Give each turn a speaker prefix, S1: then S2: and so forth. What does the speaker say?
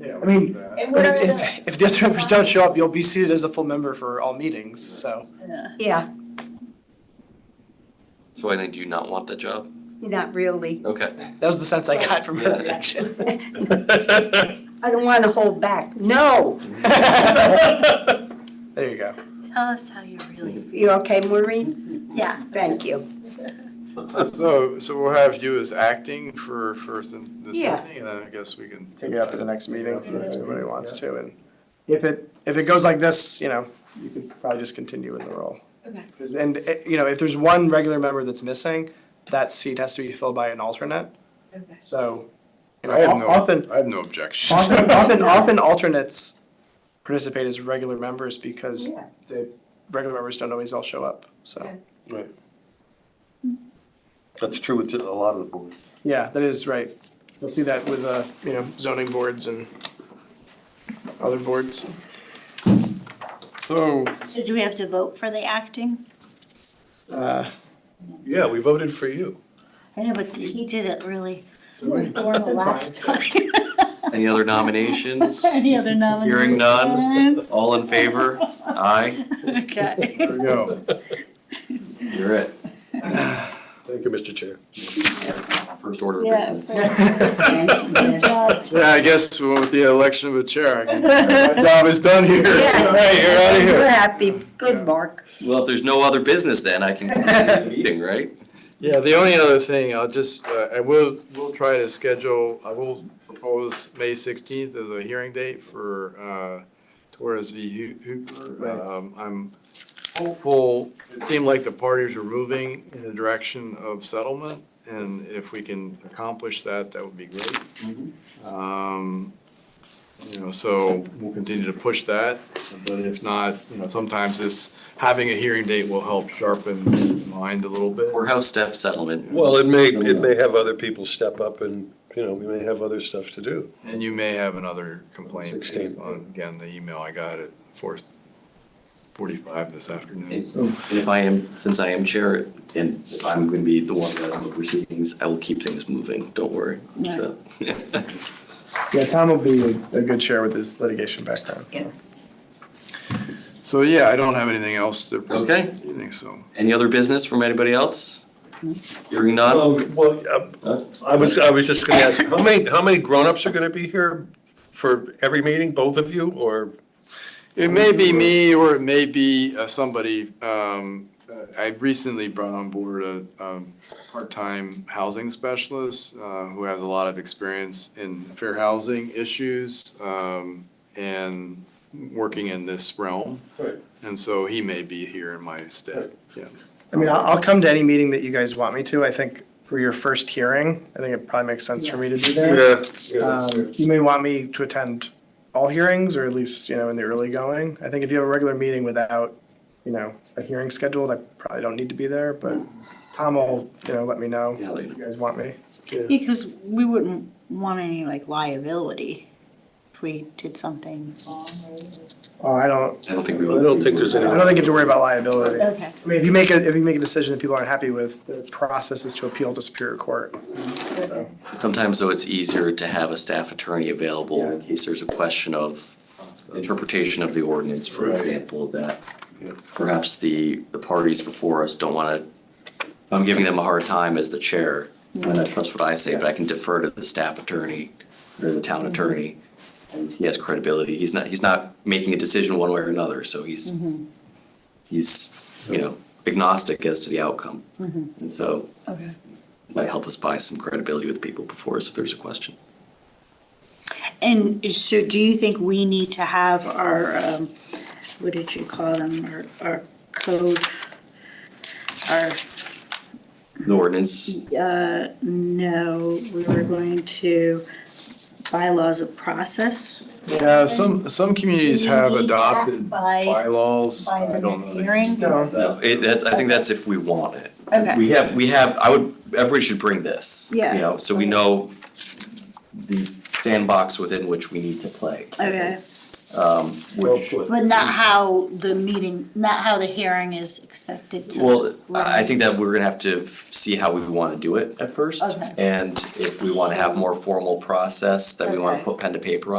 S1: Yeah.
S2: I mean,
S3: And what are the?
S2: If, if the other members don't show up, you'll be seated as a full member for all meetings, so.
S3: Yeah.
S4: Yeah,
S5: So I think, do you not want that job?
S4: not really.
S5: Okay.
S2: That was the sense I got from her reaction.
S5: There
S4: I don't want to hold back. No.
S2: There you go.
S3: Tell us how you really,
S4: You okay, Maureen?
S3: yeah.
S4: Thank you.
S1: So, so we'll have you as acting for, for this this
S4: Yeah.
S1: evening, and then I guess we can.
S2: Take it out to the next meeting if anybody wants to, and if it, if it goes like this, you know, you could probably just continue in the role.
S3: Okay.
S2: 'Cause- And, eh, you know, if there's one regular member that's missing, that seat has to be filled by an alternate,
S3: Okay.
S2: so. you know,
S1: I have
S2: of-
S1: no,
S2: Often,
S1: I have no objection.
S2: often, often, often alternates participate as regular members because
S4: Yeah.
S2: the regular members don't always all show up, so.
S3: Yeah.
S6: That's true with a lot of the boards.
S2: Yeah, that is right. You'll see that with, uh, you know, zoning boards and other boards.
S1: So,
S3: So do we have to vote for the acting?
S2: Uh,
S6: Yeah, we voted for you.
S3: I know, but he did it really formal last time.
S5: Any other nominations?
S3: Any other nominations?
S5: Hearing none. All in favor? Aye.
S3: Okay.
S1: there we go.
S5: You're it.
S6: Thank you, Mr. Chair.
S5: First order of
S3: Yeah,
S5: business.
S3: Good job.
S1: Yeah, I guess we went with the election of a chair. I can- My job is done here. All right, you're out of
S4: We're
S1: here.
S4: happy. Good, Mark.
S5: Well, if there's no other business, then I can continue the meeting, right?
S1: Yeah, the only other thing, I'll just, uh, I will, we'll try to schedule, I will propose May sixteenth as a hearing date for, uh, Torres v. Hu- Hooper. Um, I'm hopeful, it seemed like the parties are moving in the direction of settlement, and if we can accomplish that, that would be great. Um, you know, so we'll continue to push that, but if not, you know, sometimes this, having a hearing date will help sharpen mind a little bit.
S5: Courthouse step settlement.
S6: Well, it may, it may have other people step up and, you know, we may have other stuff to do.
S1: And you may have another complaint based
S6: 16.
S1: on, again, the email I got at four forty-five this afternoon.
S5: And If I am, since I am chair, and if I'm gonna be the one that oversees things, I will keep things moving, don't worry, so.
S2: yeah, Tom will be a good chair with his litigation background.
S1: So, yeah, I don't have anything else to
S5: Okay.
S1: present this evening, so.
S5: Any other business from anybody else? Hearing none?
S6: Um, Well, uh, I was, I was just gonna ask, how many, how many grown-ups are gonna be here for every meeting, both of you, or?
S1: It may be me or it may be uh, somebody, um, I recently brought on board a, um, part-time housing specialist, uh, who has a lot of experience in fair housing issues, um, and working in this realm.
S6: Right.
S1: And so he may be here in my stead, yeah.
S2: I mean, I'll, I'll come to any meeting that you guys want me to. I think for your first hearing, I think it probably makes sense for me to be there. Um, You may want me to attend all hearings, or at least, you know, in the early going. I think if you have a regular meeting without, you know, a hearing scheduled, I probably don't need to be there, but Tom will, you know, let me know
S5: Yeah,
S2: if
S5: later.
S2: you guys want me.
S3: Because we wouldn't want any like liability if we did something wrong.
S2: Oh, I don't,
S5: I don't think we
S6: I don't think there's
S2: I
S6: any-
S2: don't think you have to worry about liability.
S3: Okay.
S2: I mean, if you make a, if you make a decision that people aren't happy with, the process is to appeal to Superior Court. So,
S5: Sometimes though, it's easier to have a staff attorney available in case there's a question of interpretation of the ordinance, for
S6: Right.
S5: example, that
S6: Yeah.
S5: perhaps the, the parties before us don't wanna, I'm giving them a hard time as the chair, and I trust what I say, but I can defer to the staff attorney or the town attorney. And he has credibility, he's not, he's not making a decision one way or another, so he's, he's, you know, agnostic as to the outcome. And so
S3: Okay.
S5: might help us buy some credibility with people before us if there's a question.
S3: And so do you think we need to have our, um, what did you call them, our, our code? Our,
S5: The ordinance,
S3: uh, no, we were going to bylaws of process?
S1: Yeah, some, some communities have
S3: Community act
S1: adopted
S3: by-
S1: bylaws.
S3: by the
S1: I don't
S3: next
S1: know.
S3: hearing?
S2: No.
S5: no, it, that's, I think that's if we want it.
S3: Okay.
S5: We have, we have, I would, everybody should bring this.
S3: Yeah.
S5: You know, so we know the sandbox within which we need to play.
S3: Okay,
S5: Um, which,
S3: but not how the meeting, not how the hearing is expected to.
S5: well, I I
S3: run.
S5: think that we're gonna have to f- see how we wanna do it at first.
S3: Okay.
S5: And if we wanna have more formal process, then we wanna
S3: Okay.
S5: put pen to paper on.